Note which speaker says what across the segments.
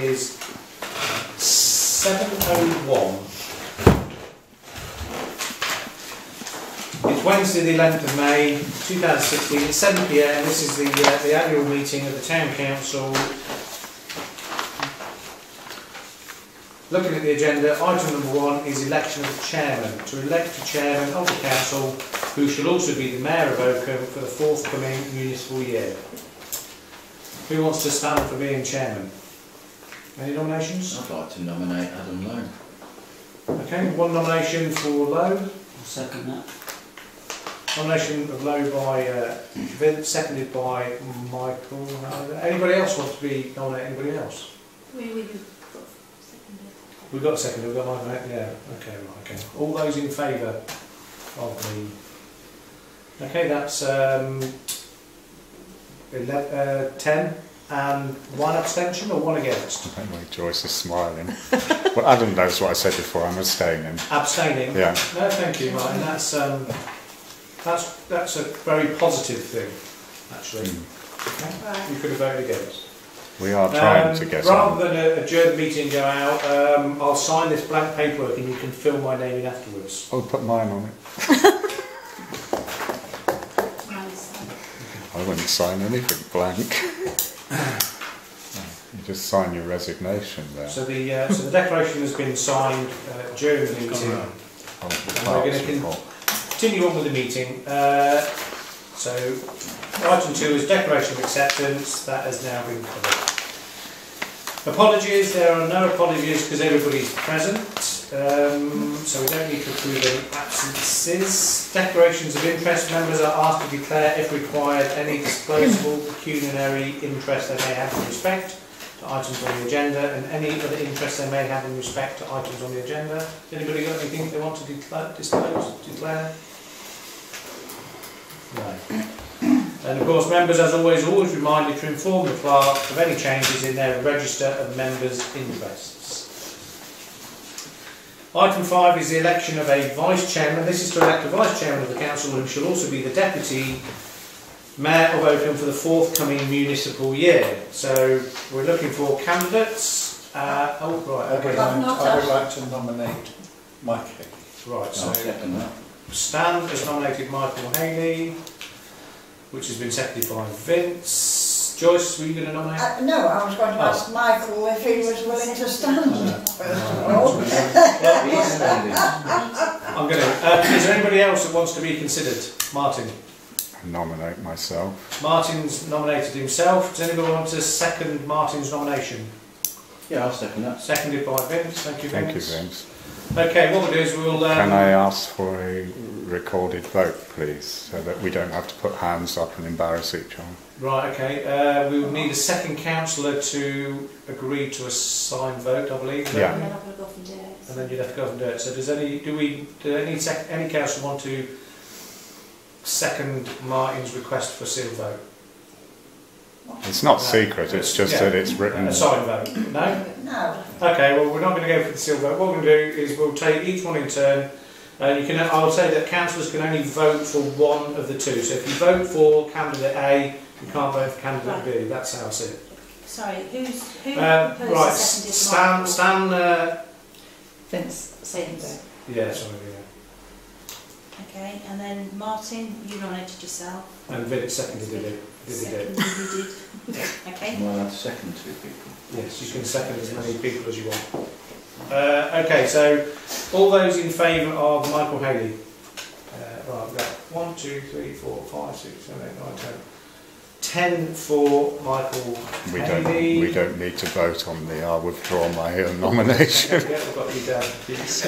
Speaker 1: is seven oh one. It's Wednesday, the eleventh of May, two thousand sixteen, at seven P M. This is the, uh, the annual meeting of the town council. Looking at the agenda, item number one is election of the chairman. To elect a chairman of the council, who shall also be the mayor of Oakham for the forthcoming municipal year. Who wants to stand for being chairman? Any nominations?
Speaker 2: I'd like to nominate Adam Lowe.
Speaker 1: Okay, one nomination for Lowe,
Speaker 3: I'll second that.
Speaker 1: nomination of Lowe by uh, Vince, seconded by Michael. Anybody else want to be nominated, anybody else?
Speaker 4: Where were you put seconded?
Speaker 1: We've got a second, we've got Michael, right? yeah, okay, right, okay. All those in favour of the... Okay, that's um, ele- uh, 10 and one abstention or one against?
Speaker 5: Anyway, Joyce is smiling. well, Adam knows what I said before. I'm abstaining.
Speaker 1: Abstaining?
Speaker 5: Yeah.
Speaker 1: No, thank you, Martin. That's, um, that's, that's a very positive thing, actually.
Speaker 4: Right.
Speaker 1: You could have voted against.
Speaker 5: We are Hmm. trying
Speaker 1: Um,
Speaker 5: to get on.
Speaker 1: Rather than uh, adjourn the meeting and go out, um, I'll sign this blank paperwork and you can fill my name in afterwards.
Speaker 5: I'll Oh, put mine on it.
Speaker 4: Nice.
Speaker 5: I wouldn't sign anything blank. you just sign your resignation there.
Speaker 1: So the, uh, so the declaration has been signed uh, during the meeting.
Speaker 5: Hold the
Speaker 1: we're
Speaker 5: parts
Speaker 1: gonna con-
Speaker 5: report.
Speaker 1: Continue on with the meeting. Uh, so item two is declaration of acceptance. That has now been covered. Apologies, there are no apologies because everybody's present. Um, so we don't need to approve any absences. Declarations of interest. Members are asked to declare if required any disposable pecuniary interest they may have in respect to items on the agenda and any other interest they may have in respect to items on the agenda. Has Anybody got anything they want to declare, disclose, declare? No. And of course, members, as always, are always reminded to inform the clerk of any changes in their register of members' interests. Item five is the election of a vice chairman. This is to elect a vice chairman of the council who shall also be the deputy mayor of Oakham for the forthcoming municipal year. So we're looking for candidates. Uh, oh, right,
Speaker 6: I would
Speaker 1: okay.
Speaker 4: Well,
Speaker 6: like,
Speaker 4: not
Speaker 6: I would
Speaker 4: us.
Speaker 6: like to nominate Michael.
Speaker 1: Right,
Speaker 2: I'll
Speaker 1: so
Speaker 2: second that.
Speaker 1: Stan has nominated Michael Haley, which has been seconded by Vince. Joyce, were you going to nominate?
Speaker 7: Uh, no, I was going to
Speaker 1: Oh.
Speaker 7: ask Michael if he was willing to stand. first of all.
Speaker 1: Well,
Speaker 2: He's standing.
Speaker 1: I'm going to. Uh, is there anybody else that wants to be considered? Martin.
Speaker 5: Nominate myself.
Speaker 1: Martin's nominated himself. Does anyone want to second Martin's nomination?
Speaker 2: Yeah, I'll second that.
Speaker 1: Seconded by Vince. Thank you, Vince.
Speaker 5: Thank you, Vince.
Speaker 1: Okay, what we'll do is we'll. Um,
Speaker 5: Can I uh, ask for a recorded vote, please, so that we don't have to put hands up and embarrass each other?
Speaker 1: Right, okay. Uh, we would need a second councillor to agree to a signed vote, I believe.
Speaker 5: Yeah.
Speaker 4: And then I'm going to go from there.
Speaker 1: And then you'd have to go and do it. So does any, do we, do any, sec- any council want to second Martin's request for seal vote?
Speaker 5: It's not
Speaker 1: No.
Speaker 5: secret. It's just
Speaker 1: Yeah.
Speaker 5: that it's written.
Speaker 1: A signed vote? No?
Speaker 7: No,
Speaker 1: Okay, well, we're not going to go for the seal vote. What we're going to do is we'll take each one in turn. Uh, you can, I'll say that councillors can only vote for one of the two. So if you vote for candidate A, you can't vote for candidate B. That's how it's it.
Speaker 4: Sorry, who's, who
Speaker 1: Uh,
Speaker 4: proposed
Speaker 1: right,
Speaker 4: the seconded
Speaker 1: Stan,
Speaker 4: Michael?
Speaker 1: Stan, uh,
Speaker 7: Vince.
Speaker 4: Sins.
Speaker 1: yeah, sorry,
Speaker 4: Okay, and then Martin, you nominated yourself.
Speaker 1: yeah. And Vince seconded it, did he do?
Speaker 4: Seconded, you did. Okay.
Speaker 2: Am I allowed to second two people?
Speaker 1: Yes, you can second as many people as you want. Uh, okay, so all those in favour of Michael Haley? Uh, right, we've got one, two, three, four, five, six, seven, eight, nine, ten. Ten for Michael
Speaker 5: We don't.
Speaker 1: Haley.
Speaker 5: We don't need to vote on the. I withdraw my own nomination.
Speaker 1: Yeah, we've got you down.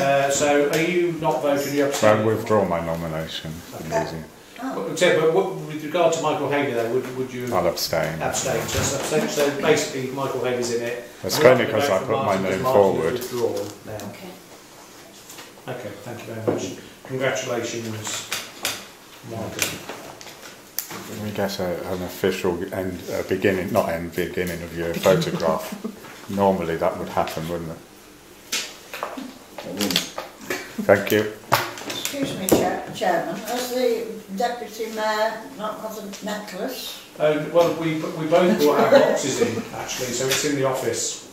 Speaker 1: Uh, so are you not voting? You're
Speaker 5: I
Speaker 1: abstaining?
Speaker 5: withdraw my nomination for the meeting.
Speaker 7: Oh,
Speaker 1: But, but what, with regard to Michael Haley, though, would, would you
Speaker 5: I'll abstain.
Speaker 1: abstain? So, that's abstain. so basically, Michael Haley's in it.
Speaker 5: That's
Speaker 1: We're not
Speaker 5: only
Speaker 1: gonna
Speaker 5: because
Speaker 1: vote
Speaker 5: I
Speaker 1: for
Speaker 5: put my
Speaker 1: Martin, because
Speaker 5: name
Speaker 1: Martin's
Speaker 5: forward.
Speaker 1: withdrawn now.
Speaker 4: Okay.
Speaker 1: Okay, thank you very much. Congratulations, Michael.
Speaker 5: Can we get a, an official end, uh, beginning, not end, beginning of your photograph? Normally that would happen, wouldn't it?
Speaker 2: I wouldn't.
Speaker 5: Thank you.
Speaker 7: excuse me, Chair- Chairman, as the deputy mayor not got a necklace?
Speaker 1: Uh, Um, well, we, we both brought our boxes in, actually, so it's in the office.